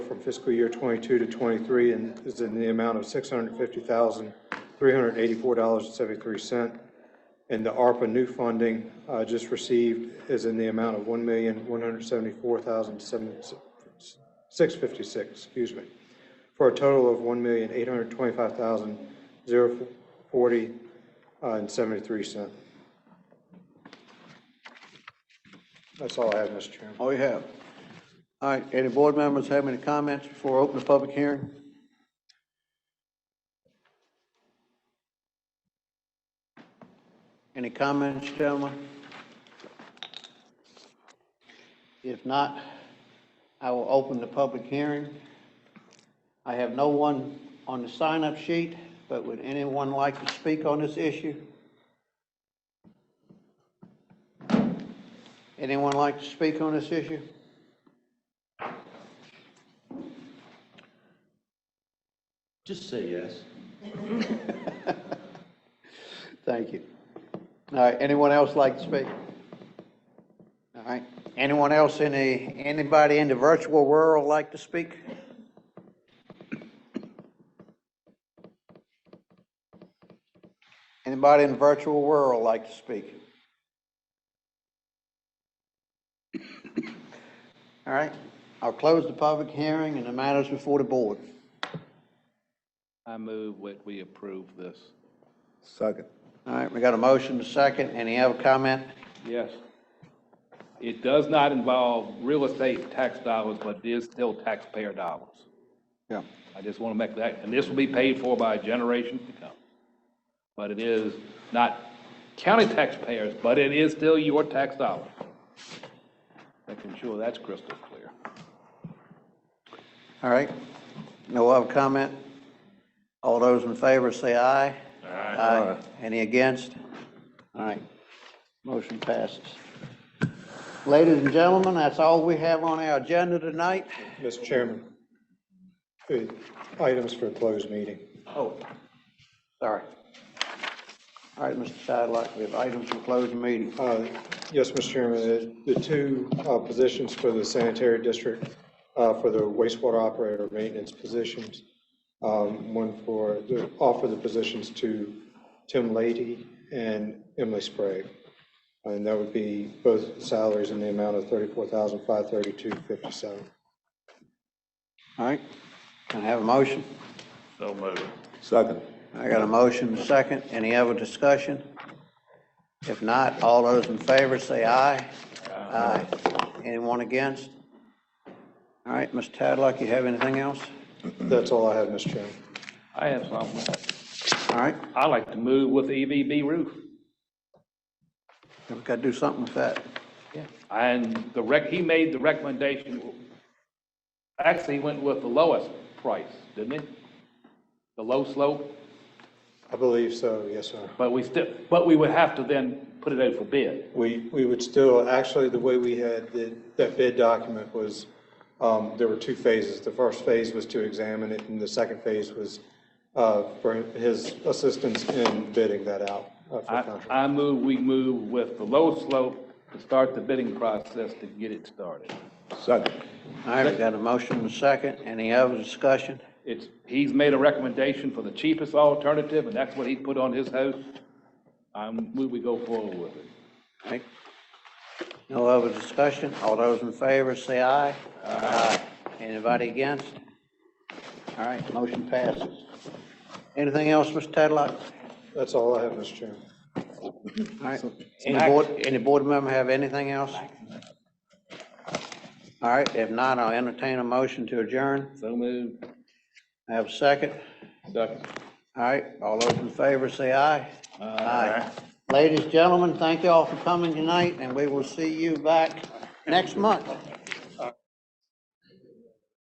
from fiscal year '22 to '23 and is in the amount of $650,384.73. And the ARPA new funding uh, just received is in the amount of $1,174,656, excuse me, for a total of $1,825,040 uh, and 73 cents. That's all I have, Mr. Chairman. All Oh, you have. All right, any board members have any comments before I open the public hearing? Any comments, gentlemen? If not, I will open the public hearing. I have no one on the sign-up sheet, but would anyone like to speak on this issue? Anyone like to speak on this issue? Just say yes. Thank you. All right, anyone else like to speak? All right, anyone else in the, anybody in the virtual world like to speak? Anybody in the virtual world like to speak? All right, I'll close the public hearing and the matters before the board. I move that we approve this. Second. All right, we got a motion, a second, any other comment? Yes. It does not involve real estate tax dollars, but it is still taxpayer dollars. Yeah. I just want to make that, and this will be paid for by a generation to come. But it is not county taxpayers, but it is still your tax dollar. Making sure that's crystal clear. All right, no other comment? All those in favor say aye. Aye. Any against? All right, motion passes. Ladies and gentlemen, that's all we have on our agenda tonight. Mr. Chairman, the items for closed meeting. Oh, sorry. All right, Mr. Sidelock, we have items for closed meeting. Uh, Yes, Mr. Chairman, the the two uh, positions for the sanitary district, uh, for the wastewater operator maintenance positions, um, one for, the- offer the positions to Tim Lady and Emily Sprague. And that would be both salaries in the amount of $34,532.57. All right, can I have a motion? So moved. Second. I got a motion, a second. Any other discussion? If not, all those in favor say aye. Aye. Anyone against? All right, Mr. Tadlock, you have anything else? That's all I have, Mr. Chairman. I have something. All right, I like to move with the EVB roof. we've got to do something with that. And the rec, he made the recommendation, actually, he went with the lowest price, didn't he? The low slope, I believe so, yes, sir. but we still, but we would have to then put it out for bid. We, we would still, actually, the way we had the- that bid document was, um, there were two phases. The first phase was to examine it, and the second phase was uh, for his assistance in bidding that out uh, for I, contract. I move, we move with the low slope to start the bidding process to get it started. Second. All right, we got a motion, a second. Any other discussion? It's, he's made a recommendation for the cheapest alternative, and that's what he put on his house. I move we go forward with it. All right. No other discussion? All those in favor say aye. Aye. Anybody against? All right, motion passes. Anything else, Mr. Tadlock? That's all I have, Mr. Chairman. All right. Any board, any board member have anything else? All right, if not, I'll entertain a motion to adjourn. So moved. I Have a second. Second. All right, all those in favor say aye. Aye. Ladies, gentlemen, thank you all for coming tonight, and we will see you back next month.